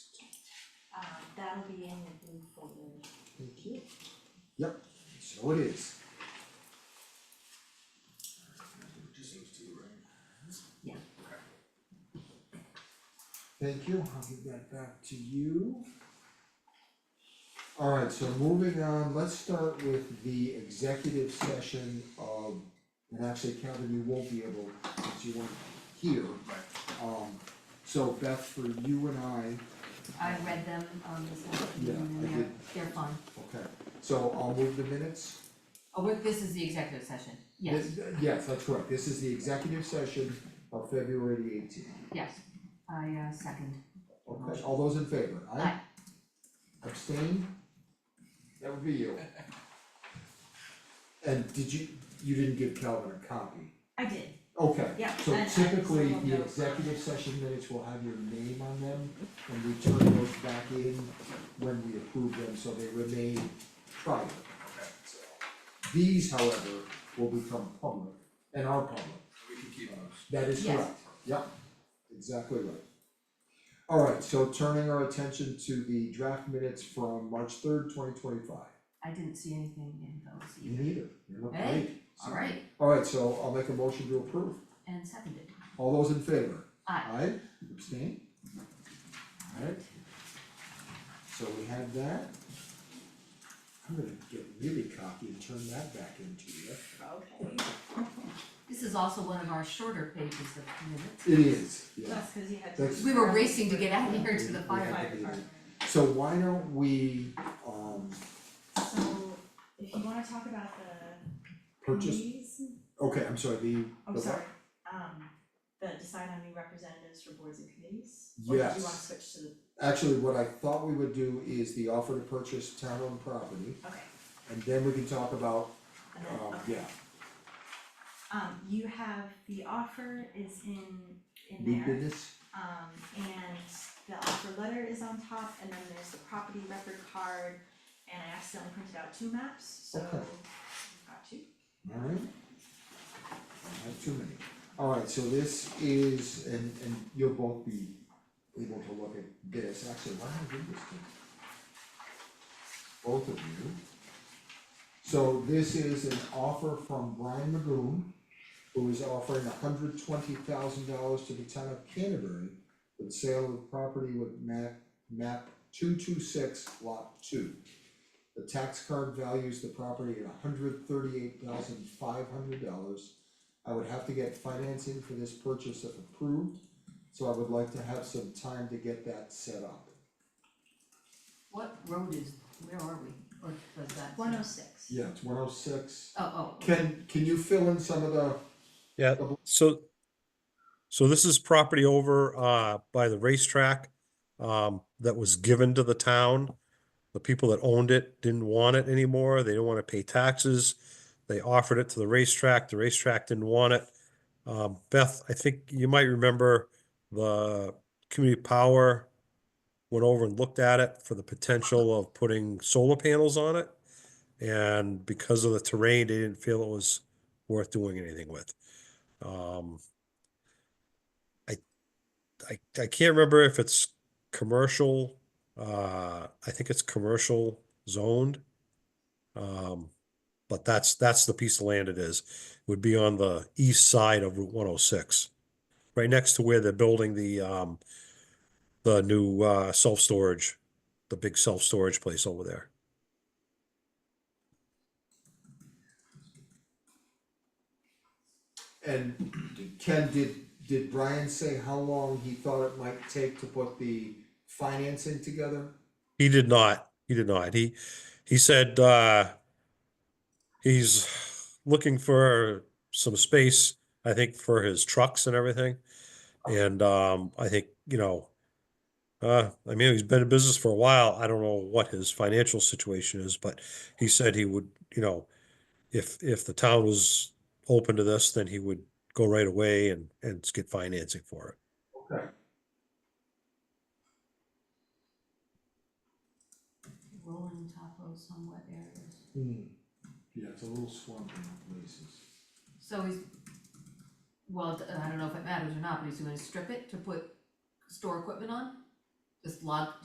Um, that'll be in the blue folder. Thank you. Yep, so it is. Just those two, right? Yeah. Thank you, I'll give that back to you. Alright, so moving on, let's start with the executive session of, and actually Calvin, you won't be able, since you weren't here. Um, so Beth, for you and I, I read them um this afternoon Yeah, I and they're did. they're fine. okay, so I'll move the minutes. Oh, wait, this is the executive session, yes, This- Yes, that's correct, this is the executive session of February eighteenth. yes, I uh second, Okay, all those in favor, aye? Aye. Abstain? That would be you. And did you, you didn't give Calvin a copy? I did, Okay, Yeah, I- I so just typically, don't the know. executive session minutes will have your name on them, and we turn those back in when we approve them, so they remain private. So, These, however, will become public, and are public. We can keep those. That is Yes. correct, yep, exactly right. Alright, so turning our attention to the draft minutes from March third, twenty twenty five. I didn't see anything in those You either. neither, you look Hey, great. Alright, Alright, so I'll make a motion to approve, and seconded, all those in favor? aye, Aye, abstain? Alright. So we have that. I'm gonna get really cocky and turn that back into you. okay. this is also one of our shorter pages of minutes. It is, yeah. That's cause you had That's- to. We were racing to get out of here to the We- we fire, have Fire to do that. department. So why don't we, um, So if you wanna talk about the purchase, committees, okay, I'm sorry, the, oh the what? sorry, um, the decide on new representatives for boards and committees? Or did you wanna Yes. switch to the, Actually, what I thought we would do is the offer to purchase town-owned property, okay, and then we can talk about, and then, um, okay. yeah, Um, you have, the offer is in, in new there, business. um, and the offer letter is on top, and then there's the property record card, and I accidentally printed out two maps, so Okay. you've got two. Alright. I have too many. Alright, so this is, and and you'll both be able to look at this, actually, why don't I give this to both of you? So this is an offer from Brian Magoon, who is offering hundred twenty thousand dollars to the town of Canterbury for the sale of property with map map two two six lot two. The tax card values the property at hundred thirty-eight thousand five hundred dollars. I would have to get financing for this purchase if approved, so I would like to have some time to get that set up. what road is, where are we, or does that? One oh six. Yeah, it's one oh six. Oh, oh, Can, can you fill in some of the, Yeah, Double- so, so this is property over uh by the racetrack um that was given to the town. The people that owned it didn't want it anymore. They didn't want to pay taxes. They offered it to the racetrack. The racetrack didn't want it. Um, Beth, I think you might remember the community power went over and looked at it for the potential of putting solar panels on it. And because of the terrain, they didn't feel it was worth doing anything with. Um, I, I, I can't remember if it's commercial, uh, I think it's commercial zoned. Um, but that's, that's the piece of land it is, would be on the east side of Route one oh six. Right next to where they're building the, um, the new, uh, self-storage, the big self-storage place over there. and Ken, did, did Brian say how long he thought it might take to put the financing together? He did not. He did not. He he said uh he's looking for some space, I think, for his trucks and everything. And um I think, you know, uh I mean he's been in business for a while. I don't know what his financial situation is, but he said he would, you know, if if the town was open to this, then he would go right away and and get financing for it. Okay. rolling topo somewhat areas. Hmm, yeah, it's a little swampy in places. So he's, well, d- I don't know if it matters or not, but he's gonna strip it to put store equipment on? Just log,